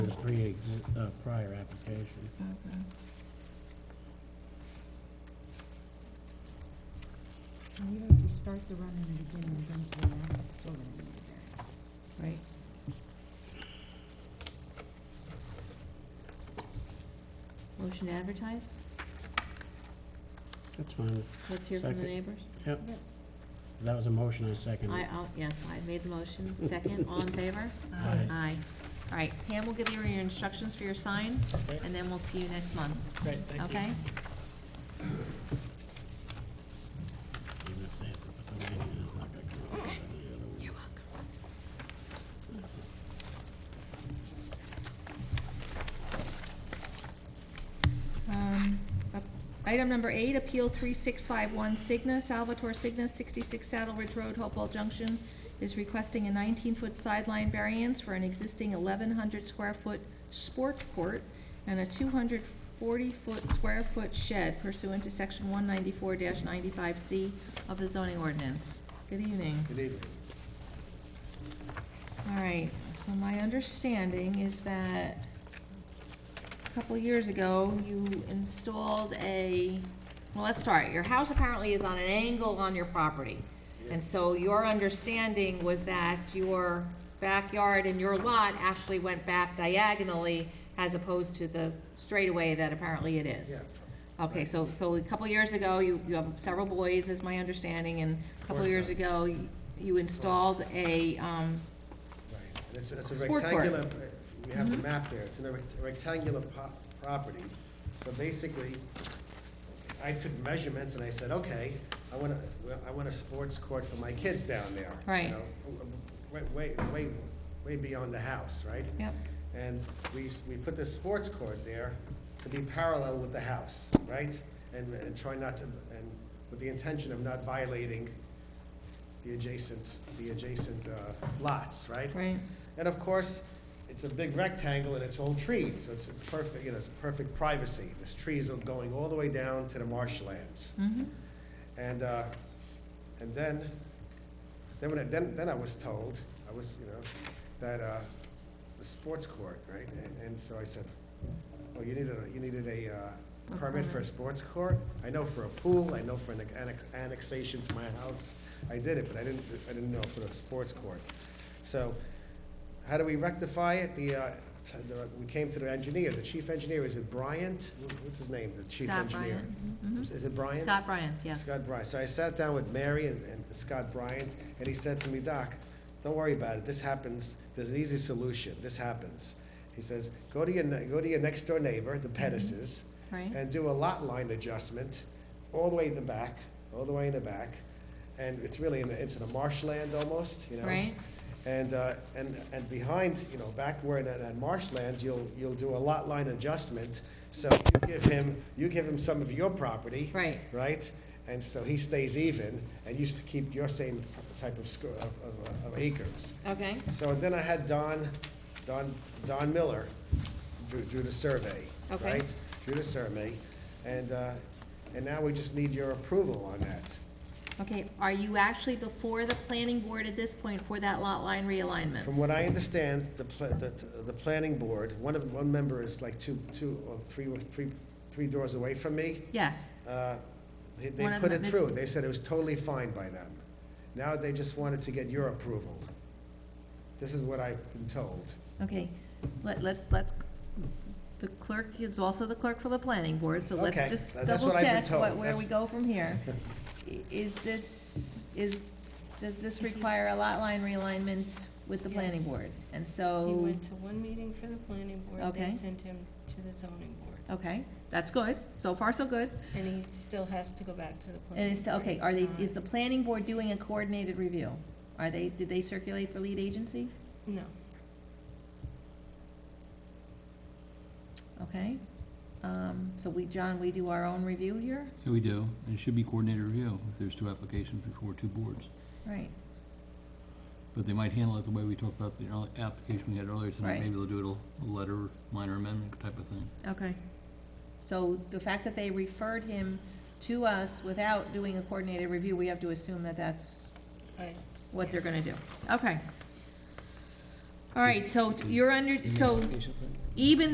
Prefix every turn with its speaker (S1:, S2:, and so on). S1: the pre, uh, prior application.
S2: Mm-hmm.
S3: Okay.
S2: And even if you start the run in the beginning and bring it to the end, it's still gonna need a variance.
S3: Right. Motion to advertise?
S1: That's fine.
S3: Let's hear from the
S1: Second.
S3: neighbors.
S1: Yep. That was a motion, I second
S3: I,
S1: it.
S3: I'll, yes, I made the motion. Second, all in favor?
S1: Aye.
S3: Aye. All right, Pam will give you your instructions for your sign,
S4: Okay.
S3: and then we'll see you next month,
S4: Great, thank you.
S3: okay?
S1: Even if they have to put the wording in, it's not gonna come out.
S3: You're welcome. Um, up- Item number eight, Appeal 3651 Cigna, Salvatore Cigna, 66 Saddle Ridge Road, Hopewell Junction, is requesting a 19-foot sideline variance for an existing 1,100-square-foot sport court and a 240-foot square-foot shed pursuant to Section 194-95C of the zoning ordinance. Good evening.
S5: Good evening.
S3: All right, so my understanding is that a couple years ago, you installed a, well, let's start, your house apparently is on an angle on your property. And so your understanding was that your backyard and your lot actually went back diagonally as opposed to the straightaway that apparently it is.
S5: Yeah.
S3: Okay, so, so a couple years ago, you, you have several boys, is my understanding, and a couple
S5: Four
S3: years
S5: sons.
S3: ago, you- you installed a, um,
S5: Right, and it's, it's a
S3: Sport Mm-hmm. court.
S5: rectangular, uh, we have the map there, it's in a rect- rectangular po- property. So basically, I took measurements and I said, okay, I want a, I want a sports court for my kids down there. you
S3: Right.
S5: know, Way, way, way, way beyond the house, right?
S3: Yep,
S5: And we, s- we put this sports court there to be parallel with the house, right? And, and try not to, and with the intention of not violating the adjacent, the adjacent uh, lots, right?
S3: right,
S5: And of course, it's a big rectangle and it's all trees, so it's a perfect, you know, it's perfect privacy. There's trees are going all the way down to the marshlands.
S3: mm-hmm,
S5: And, uh, and then, then when, I- then, then I was told, I was, you know, that, uh, the sports court, right? And, and so I said, oh, you needed, a you needed a, uh,
S3: A
S5: permit for a
S3: permit.
S5: sports court? I know for a pool, I know for an annex, annexation to my house, I did it, but I didn't, I didn't know for the sports court. So, how do we rectify it? The, uh, t- the, we came to the engineer, the chief engineer, is it Bryant? What's his name, the chief
S3: Scott
S5: engineer?
S3: mhm.
S5: Is it Bryant?
S3: Scott Bryant, yes.
S5: Scott Bryant. So I sat down with Mary and, and Scott Bryant, and he said to me, Doc, don't worry about it. This happens. There's an easy solution. This happens. He says, go to your, ne- go to your next door neighbor, the Pettises,
S3: Mm-hmm. Right.
S5: and do a lot line adjustment all the way in the back, all the way in the back. And it's really, in the, it's in a marshland almost, you know?
S3: Right.
S5: And, uh, and, and behind, you know, back where in that that marshland, you'll, you'll do a lot line adjustment. So you give him, you give him some of your property.
S3: Right.
S5: Right? And so he stays even and used to keep your same type of, sco- of, of- of acres.
S3: Okay,
S5: So then I had Don, Don, Don Miller drew, drew the survey,
S3: Okay.
S5: right? Drew the survey, and, uh, and now we just need your approval on that.
S3: okay, are you actually before the planning board at this point for that lot line realignment?
S5: From what I understand, the, pla- the, the planning board, one of, one member is like two, two, or three, three, three doors away from me.
S3: Yes,
S5: Uh, They, they
S3: One of
S5: put
S3: them
S5: it
S3: is-
S5: through, they said it was totally fine by them. Now they just wanted to get your approval. This is what I've been told.
S3: okay, let, let's, let's, the clerk is also the clerk for the planning board, so let's
S5: Okay,
S3: just
S5: that's what
S3: double
S5: I've been
S3: check what,
S5: told.
S3: where we
S5: That's-
S3: go from here. I- Is this, is, does this require a lot line realignment with the planning
S6: Yes.
S3: board? And
S6: He
S3: so,
S6: went to one meeting for the planning board,
S3: Oh. Okay.
S6: they sent him to the zoning board,
S3: okay, that's good, so far so good.
S6: and he still has to go back to the planning.
S3: And it's,
S6: board.
S3: okay,
S6: It's
S3: are they,
S6: not-
S3: is the planning board doing a coordinated review? Are they, did they circulate for lead agency?
S6: No,
S3: Okay, um, so we, John, we do our own review here?
S7: Yeah, we do, and it should be coordinated review if there's two applications before two boards.
S3: Right,
S7: But they might handle it the way we talked about the early, application we had earlier
S3: Right.
S7: tonight. Maybe they'll do it a letter, minor amendment type of thing.
S3: okay. So the fact that they referred him to us without doing a coordinated review, we have to assume that that's
S6: I,
S3: what they're gonna do. Okay. All right, so you're under, so even